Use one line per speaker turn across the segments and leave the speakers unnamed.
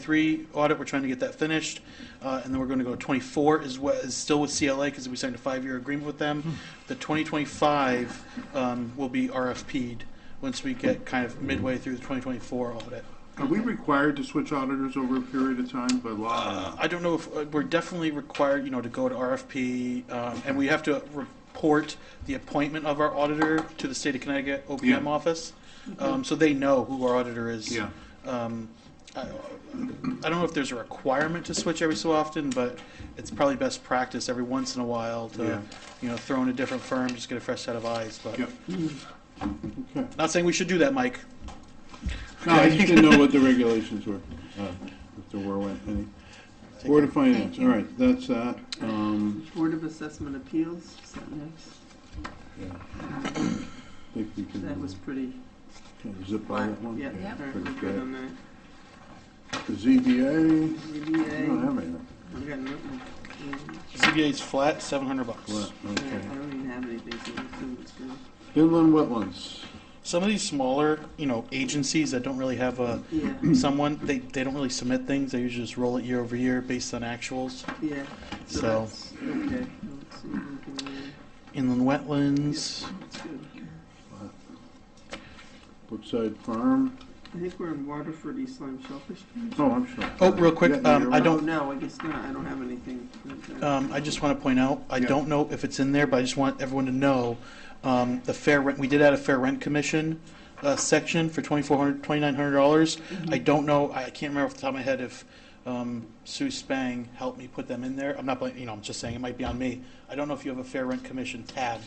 23 audit, we're trying to get that finished, uh, and then we're going to go to 24 is what, is still with CLA, because we signed a five-year agreement with them. The 2025 um, will be RFP'd once we get kind of midway through the 2024 audit.
Are we required to switch auditors over a period of time by law?
Uh, I don't know if, uh, we're definitely required, you know, to go to RFP, um, and we have to report the appointment of our auditor to the state of Connecticut OPM
Yeah. Mm-hmm.
office, um, so they know who our auditor is.
Yeah.
Um, I, I don't know if there's a requirement to switch every so often, but it's probably best practice every once in a while to,
Yeah.
you know, throw in a different firm, just get a fresh set of eyes. But
Yeah. Okay.
not saying we should do that, Mike.
No, I just didn't know what the regulations were, uh, if there were any. Board of Finance, all right, that's that. Um,
Board of Assessment Appeals, is that next?
I think we
That was
can
pretty,
can zip by
yeah,
that one.
yeah,
pretty
we're good on that.
The ZBA, I don't
ZBA,
have anything.
we got nothing. Mm,
ZBA's flat, 700 bucks.
Well,
Yeah,
okay.
I don't even have anything, so I assume it's good.
Inland wetlands,
Some of these smaller, you know, agencies that don't really have a
Yeah,
someone they, they don't really submit things they usually just roll it year over year based on actuals
yeah.
So-
that's- Okay, let's see, anything there.
inland wetlands
uh, That's good.
Brookside Farm,
I think we're in Waterford, East Lyme Shellfish Camp.
oh, I'm sorry.
Oh, real quick,
Yeah, no,
um,
you're
I
right.
don't-
No, I guess not, I don't have anything. like that.
um, i just want to point out i
Yeah.
don't know if it's in there but i just want everyone to know um, the fair rent we did add a fair rent commission uh, section for $2400 $2900 dollars i don't know i can't remember off the top of my head if um, sue spang helped me put them in there i'm not blaming you know i'm just saying it might be on me i don't know if you have a fair rent commission tab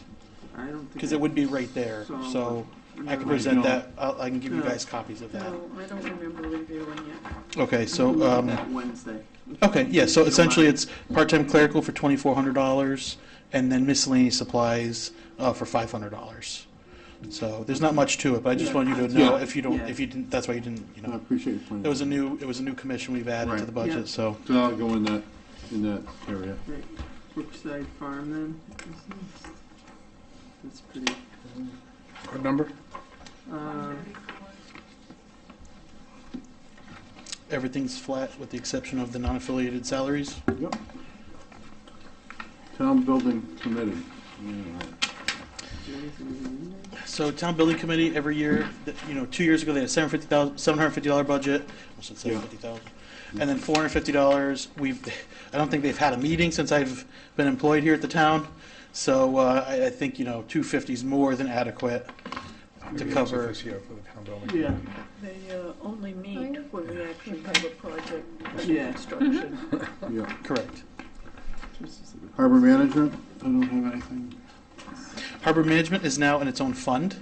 I don't think.
because it would be right there
So-
so i can
No.
present
No.
that I'll, i can give you
No.
guys copies of that
No, I don't remember reviewing it.
okay so
Look at
um,
that Wednesday.
Okay, yeah, so
If you don't
essentially
mind.
it's part-time clerical for twenty-four hundred dollars, and then miscellaneous supplies, uh, for five hundred dollars. So there's not much to it, but I just
Yeah.
wanted you to know
Yeah.
if you don't,
Yeah.
if you didn't, that's why you didn't, you
I
know.
appreciate you pointing.
It was a
that out.
new, it was a new commission we've added to
Right.
the
Yeah.
budget, so.
So I'll go in that, in that area.
Right, Brookside Farm then, is next. That's pretty,
What number?
uh,
Everything's flat with the exception of the non-affiliated salaries.
Yep. Town Building Committee. Yeah.
is there anything in there?
So town building committee, every year, th- you know, two years ago, they had seven fifty thousand, seven hundred fifty dollar budget, I said
Yeah.
seven fifty thousand. And then four hundred fifty dollars, we've, I don't think they've had a meeting since I've been employed here at the town. So, uh, I, I think, you know, two fifty's more than adequate to cover.
Yeah,
They uh, only meet when we actually have a project under
Yeah.
construction.
Yeah.
Correct.
Harbor Management, I don't have anything.
Harbor Management is now in its own fund.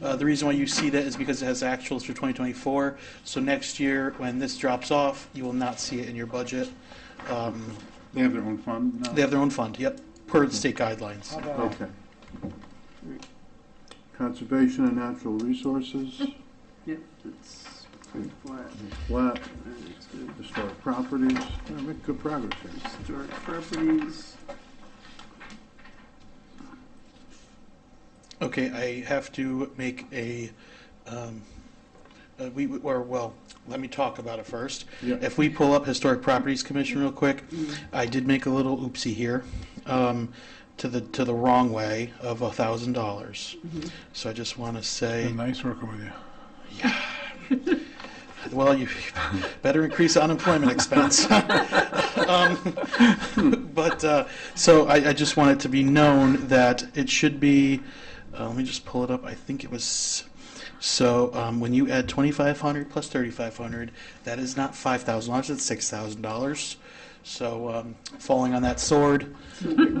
Uh, the reason why you see that is because it has actuals for 2024. So next year, when this drops off, you will not see it in your budget. Um,
They have their own fund now?
They have their own fund, yep, per the state guidelines.
Okay. Conservation and Natural Resources,
yep, that's pretty flat,
flat,
and it's good.
historic properties, Yeah, make good progress here.
Historic properties,
Okay, I have to make a, um, uh, we, or, well, let me talk about it first.
Yeah.
If we pull up Historic Properties Commission real quick, I did make a little oopsie here, um, to the, to the wrong way of a thousand dollars. So I just want to say,
Nice working with you.
well, you better increase unemployment expense. Um, But, uh, so I, I just want it to be known that it should be, uh, let me just pull it up, I think it was, so um, when you add 2,500 plus 3,500, that is not $5,000, it's $6,000. So um, falling on that sword. Um,
I'm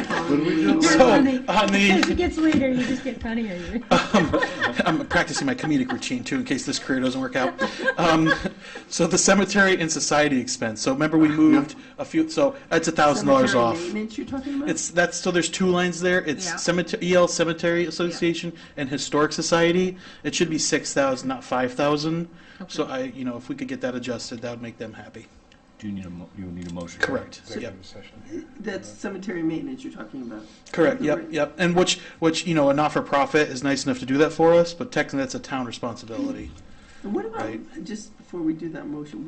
What do
following
we
you.
do?
So, on the-
As it gets later, you just get funnier.
I'm practicing my comedic routine too, in case this career doesn't work out. Um, so the cemetery and society expense. So remember, we moved a few. So that's a thousand dollars
Cemetery
off.
Maintenance you're talking about?
It's that's so there's two lines there. It's
Yeah.
cemetery, EL Cemetery Association and Historic Society. It should be six thousand, not five thousand. So I, you know, if we could get that adjusted, that would make them happy.
Do you need a, mo- you need a motion?
Correct. Yep.
executive session here.
That's cemetery maintenance you're talking about.
Correct. Yep.
Right.
Yep. And which, which you know, a not-for-profit is nice enough to do that for us, but technically that's a town responsibility.
And what about,
Right.
just before we do that motion,